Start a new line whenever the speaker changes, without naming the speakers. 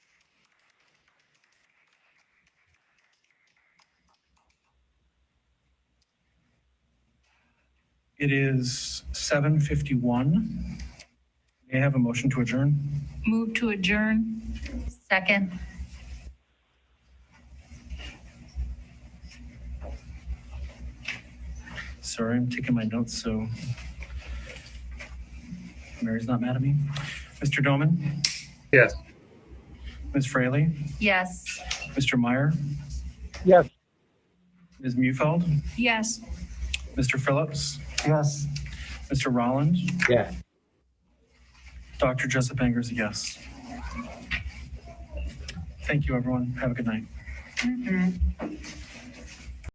It is 7:51. May I have a motion to adjourn?
Move to adjourn. Second.
Sorry, I'm taking my notes, so Mary's not mad at me. Mr. Doman,
Yes.
Ms. Fraley,
Yes.
Mr. Meyer,
Yes.
Ms. Mufeld,
Yes.
Mr. Phillips,
Yes.
Mr. Rollins,
Yeah.
Dr. Jessup Angers, a yes. Thank you, everyone. Have a good night.